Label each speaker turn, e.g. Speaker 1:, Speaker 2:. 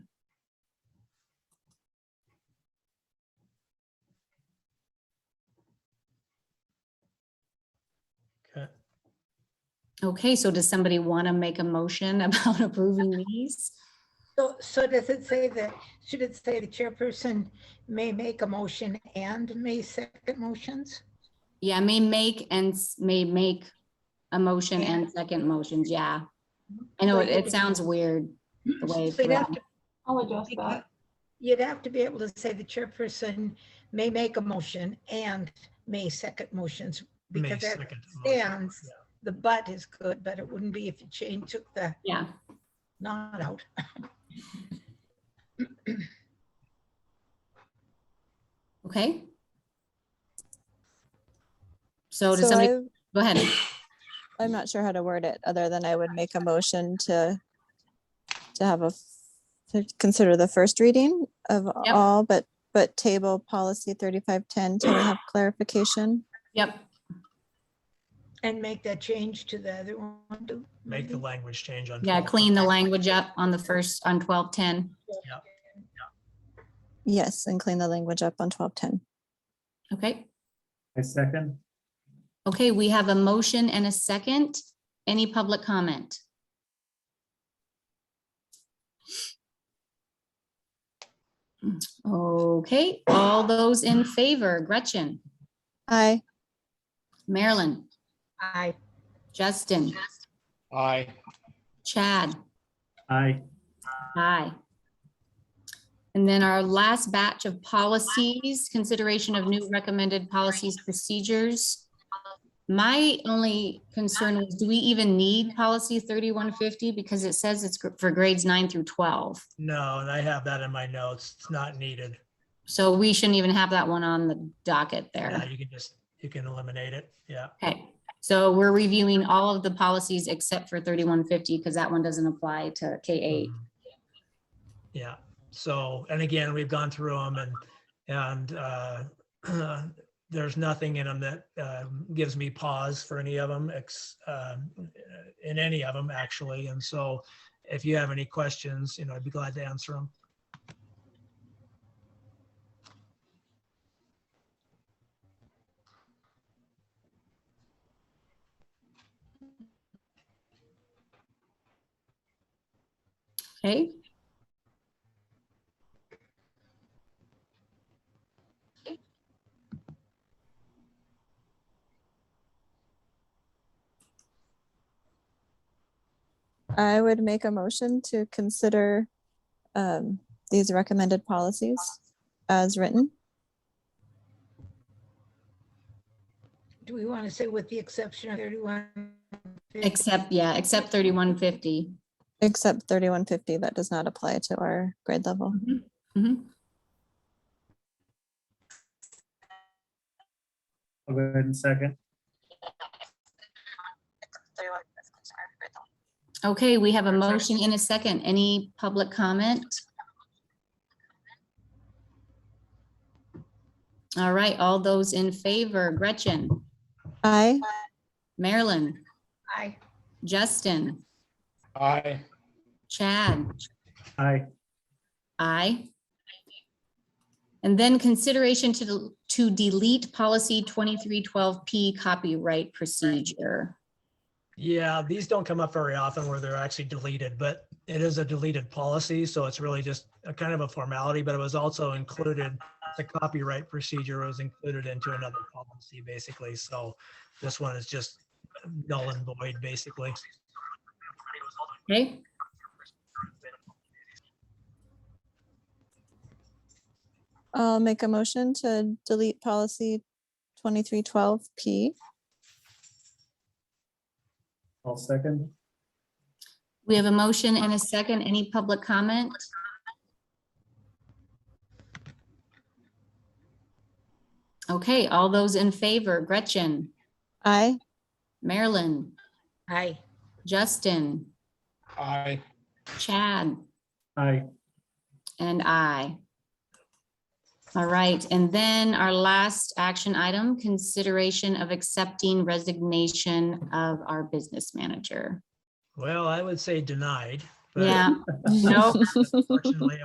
Speaker 1: Okay, so does somebody want to make a motion about approving these?
Speaker 2: So, so does it say that, should it say the chairperson may make a motion and may second motions?
Speaker 1: Yeah, may make and s- may make a motion and second motions, yeah. I know it, it sounds weird the way. it's
Speaker 2: So you'd have
Speaker 1: written.
Speaker 2: to-
Speaker 3: I'll adjust that.
Speaker 2: You'd have to be able to say the chairperson may make a motion and may second motions.
Speaker 4: May
Speaker 2: Because that
Speaker 4: second the motion.
Speaker 2: stands, the but is good, but it wouldn't be if you change, took the
Speaker 1: Yeah,
Speaker 2: not out.
Speaker 1: okay. So does
Speaker 5: So
Speaker 1: somebody,
Speaker 5: I-
Speaker 1: go ahead.
Speaker 5: I'm not sure how to word it, other than I would make a motion to, to have a, f- to consider the first reading of
Speaker 1: Yep.
Speaker 5: all, but, but table policy 3510 till we have clarification.
Speaker 1: Yep,
Speaker 2: And make that change to the other one. to-
Speaker 4: Make
Speaker 2: Mm-hmm.
Speaker 4: the language change on.
Speaker 1: yeah,
Speaker 4: 12.
Speaker 1: clean the language up on the first, on twelve ten.
Speaker 5: Yes, and clean the language up on 1210.
Speaker 1: Okay,
Speaker 6: I second.
Speaker 1: okay, we have a motion and a second. Any public comment? Okay, all those in favor, Gretchen,
Speaker 5: Aye,
Speaker 1: Marilyn,
Speaker 2: Aye.
Speaker 1: Justin,
Speaker 7: Aye.
Speaker 1: Chad,
Speaker 6: Aye.
Speaker 1: aye. And then our last batch of policies, consideration of new recommended policies, procedures. My only concern was, do we even need policy thirty-one fifty? Because it says it's gr- for grades nine through twelve.
Speaker 4: No, and I have that in my notes. It's not needed.
Speaker 1: So we shouldn't even have that one on the docket
Speaker 4: Yeah,
Speaker 1: there.
Speaker 4: you can just, you can eliminate it. Yeah.
Speaker 1: Okay, so we're reviewing all of the policies except for thirty-one fifty because that one doesn't apply to K eight.
Speaker 4: Mm-hmm. Yeah, so, and again, we've gone through them and, and, uh, there's nothing in them that, uh, gives me pause for any of them, ex, um, in any of them, actually. And so if you have any questions, you know, I'd be glad to answer them.
Speaker 1: Okay,
Speaker 5: I would make a motion to consider um, these recommended policies as written.
Speaker 2: Do we want to say with the exception of 31?
Speaker 1: except, yeah, except thirty-one fifty.
Speaker 5: Except thirty-one fifty, that does not apply to our grade level.
Speaker 1: Mhm, mhm.
Speaker 6: I'll go ahead and second.
Speaker 1: Okay, we have a motion in a second. Any public comment? All right, all those in favor, Gretchen,
Speaker 5: Aye,
Speaker 1: Marilyn,
Speaker 2: Aye.
Speaker 1: Justin,
Speaker 7: Aye.
Speaker 1: Chad,
Speaker 6: Aye.
Speaker 1: I. And then consideration to, del- to delete policy 2312P copyright procedure.
Speaker 4: Yeah, these don't come up very often where they're actually deleted, but it is a deleted policy, so it's really just a kind of a formality, but it was also included. The copyright procedure was included into another policy, basically, so this one is just null and void, basically.
Speaker 1: Okay,
Speaker 5: I'll make a motion to delete policy twenty-three twelve P.
Speaker 6: I'll second.
Speaker 1: we have a motion and a second. Any public comment? Okay, all those in favor, Gretchen,
Speaker 5: Aye,
Speaker 1: Marilyn,
Speaker 2: Aye.
Speaker 1: Justin,
Speaker 7: Aye.
Speaker 1: Chad,
Speaker 6: Aye.
Speaker 1: And I. All right, and then our last action item, consideration of accepting resignation of our business manager.
Speaker 4: Well, I would say denied. but
Speaker 1: Yeah, no.
Speaker 4: Unfortunately,